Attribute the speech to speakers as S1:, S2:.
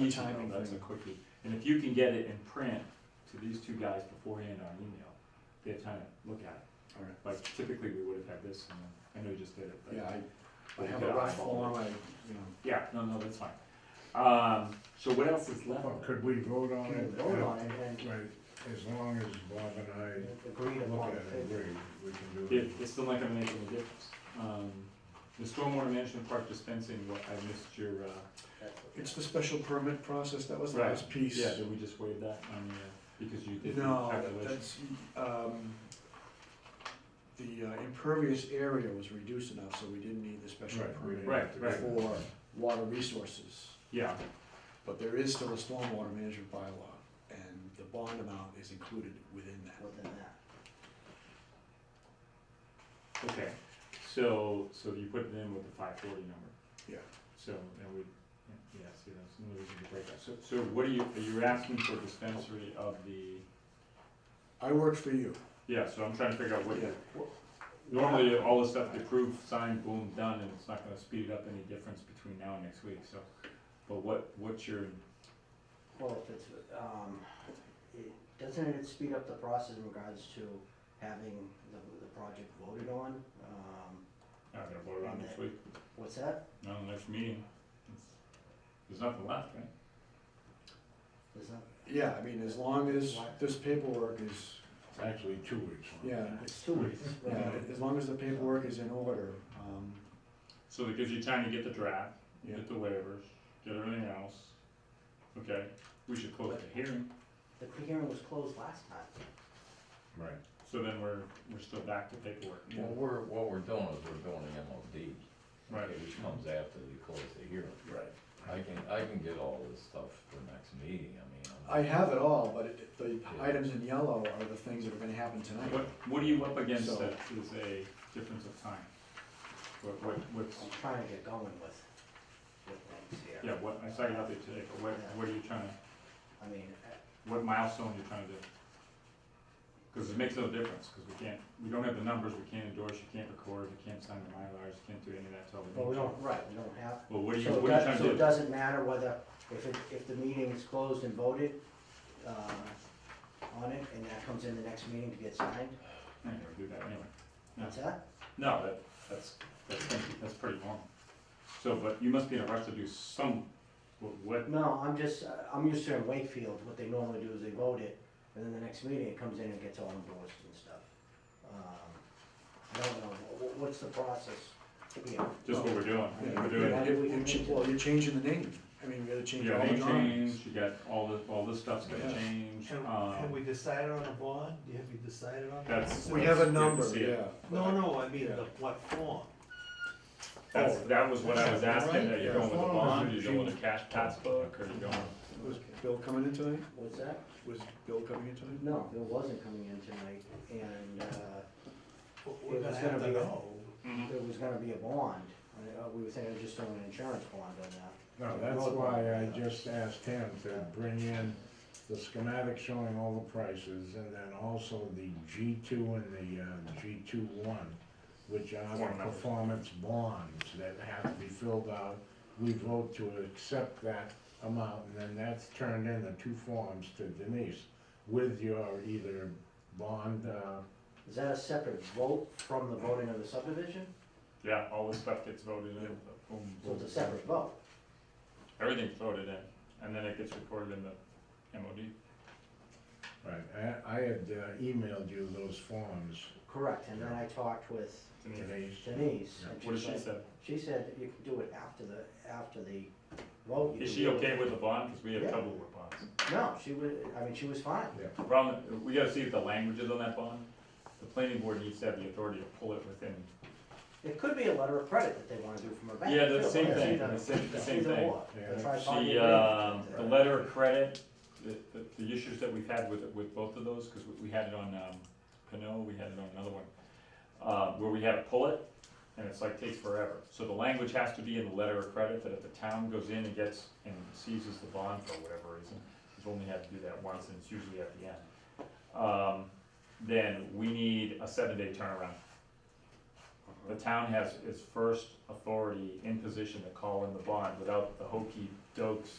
S1: Easy,
S2: timing
S1: That's a
S2: thing.
S1: quickie. And if you can get it in print to these two guys beforehand on email, they have time to look at
S2: All right.
S1: it. Like typically, we would have had this, and then, I know you just did it, but.
S2: Yeah, I, I
S1: we
S2: have
S1: could
S2: a rough
S1: eyeball
S2: form,
S1: it.
S2: I, you know.
S1: Yeah, no, no, that's fine. Um, so what else is left?
S2: Oh,
S3: Well, Could we vote on
S2: can
S3: it?
S2: vote
S4: um,
S2: on it and
S3: Right, as long as Bob and I
S2: agree
S3: look
S2: upon
S3: at it, and
S2: it.
S3: agree, we can do
S1: It,
S3: it.
S1: it's still not gonna make any difference. Um, the stormwater management park dispensing, what, I missed your, uh,
S2: It's the special permit process, that was the
S1: Right.
S2: last piece.
S1: yeah, did we just waive that on, uh, because you did the
S2: No,
S1: calculation?
S2: that's, um, the uh, impervious area was reduced enough, so we didn't need the special
S3: Right, we
S2: permit
S3: didn't have to
S1: Right,
S3: do it.
S2: for water resources.
S1: Yeah,
S2: But there is still a stormwater management bylaw, and the bond amount is included within that.
S4: within uh, that.
S1: Okay, so, so you put it in with the five forty number?
S2: Yeah.
S1: So, and we, yeah, see, that's no reason to break that. So, so what are you, are you asking for dispensary of the,
S2: I work for you.
S1: yeah, so I'm trying to figure out what,
S2: Yeah.
S1: what- normally, all the stuff they approve, sign, boom, done, and it's not gonna speed it up any difference between now and next week, so. But what, what's your,
S4: Well, if it's, um, it, doesn't it speed up the process in regards to having the, the project voted on? Um,
S1: not gonna vote on next week,
S4: what's that?
S1: not on the next meeting? There's nothing left, right?
S4: Is that,
S2: Yeah, I mean, as long as
S4: Why?
S2: this paperwork is,
S3: It's actually two weeks. huh?
S2: yeah,
S4: it's two weeks,
S2: yeah,
S4: right?
S2: as long as the paperwork is in order, um,
S1: So that gives you time to get the draft,
S2: yeah.
S1: get the waivers, get everything else. Okay, we should close the hearing,
S4: The hearing was closed last time.
S3: Right.
S1: so then we're, we're still back to paperwork.
S2: Yeah.
S5: Well, we're, what we're doing is we're doing the MOD.
S1: Right.
S5: okay, Which comes after you close the hearing.
S2: Right.
S5: I can, I can get all this stuff for next meeting, I mean.
S2: I have it all, but it- the items in yellow are the things that are gonna happen tonight.
S1: What, what are you up against
S2: So-
S1: that is a difference of time? What, what, what's,
S4: I'm trying to get going with, with things here.
S1: yeah, what, I saw you out there today, but what, what are you trying to,
S4: I mean, uh,
S1: what milestone are you trying to do? Cause it makes no difference, cause we can't, we don't have the numbers, we can't endorse, you can't record, you can't sign the Mylars, you can't do any of that till the.
S4: well, we
S1: meeting.
S4: don't, right, we don't have,
S1: Well, what are you,
S4: so it
S1: what are you
S4: does-
S1: trying to
S4: so
S1: do?
S4: it doesn't matter whether, if it, if the meeting is closed and voted, uh, on it, and that comes in the next meeting to get signed,
S1: I never do that anyway.
S4: what's that?
S1: No, that, that's, that's, that's pretty normal. So, but you must be in a rush to do some, what- what,
S4: No, I'm just, uh, I'm used to in Wakefield, what they normally do is they vote it, and then the next meeting it comes in and gets all endorsed and stuff. Um, I don't know, wha- wha- what's the process here?
S1: just what we're doing,
S2: Oh, Yeah,
S1: we're
S2: you-
S1: doing.
S2: you- you cha- Well, you're changing the name, I mean, we gotta change
S1: You
S2: all
S1: got
S2: the
S1: name
S2: drawings.
S1: change, you got all the, all this stuff's gonna
S2: Yeah.
S1: change,
S6: Have, have
S1: um,
S6: we decided on a bond? Have you decided on? that?
S1: That's-
S2: We have a
S1: Yeah,
S2: number,
S1: see it.
S2: yeah.
S6: No, no, I mean,
S2: Yeah.
S6: the, what form?
S1: that's, that was what I was asking, that you're
S3: Right,
S1: going with a
S3: yeah.
S1: bond, you're going with a cash pass book, or you're going.
S2: Was Bill coming in tonight?
S4: What's that?
S2: Was Bill coming in tonight?
S4: No, it wasn't coming in tonight, and, uh,
S6: But
S4: It
S6: We're gonna
S4: was
S6: have
S4: gonna
S6: to
S4: be a-
S6: know.
S2: Mm-hmm.
S1: mm-hmm.
S4: there was gonna be a bond, and, uh, we were thinking of just doing an insurance bond on that.
S3: No, that's
S4: Road
S3: why I
S4: bond.
S3: just asked him to bring in the schematic showing all the prices and then also the G two and the, uh, G two one, which are
S1: Form
S3: the
S1: numbers.
S3: performance bonds that have to be filled out. We vote to accept that amount and then that's turned in the two forms to Denise with your either bond, uh,
S4: Is that a separate vote from the voting of the subdivision?
S1: Yeah, all this stuff gets voted in, boom,
S4: So
S1: boom,
S4: it's a separate vote,
S1: everything's voted in, and then it gets recorded in the MOD.
S3: right, I, I had uh, emailed you those forms,
S4: correct, and then I talked with
S1: Denise,
S3: Denise.
S4: Denise, and
S1: What did
S4: she's
S1: she
S4: like,
S1: say?
S4: She said you can do it after the, after the vote. You
S1: Is
S4: can
S1: she
S4: do it.
S1: okay with the bond, cause we have
S4: Yeah.
S1: trouble with bonds?
S4: No, she was, I mean, she was fine.
S1: The Problem, we gotta see if the language is on that bond. The planning board needs to have the authority to pull it within.
S4: It could be a letter of credit that they wanna do from her bank.
S1: Yeah, the
S4: too,
S1: same
S4: but
S1: thing,
S4: she doesn't-
S1: the same, the
S4: she's
S1: same
S4: a
S1: thing.
S4: whore.
S3: Yeah.
S4: That's why I thought
S1: She,
S4: you
S1: um,
S4: agreed.
S1: the letter of credit, the, the, the issues that we've had with, with both of those, cause we, we had it on, um, Pinot, we had it on another one. Uh, where we had to pull it, and it's like takes forever. So the language has to be in the letter of credit, that if the town goes in and gets, and seizes the bond for whatever reason, we've only had to do that once, and it's usually at the end. Um, then we need a seven-day turnaround. The town has its first authority in position to call in the bond without the hokey dokes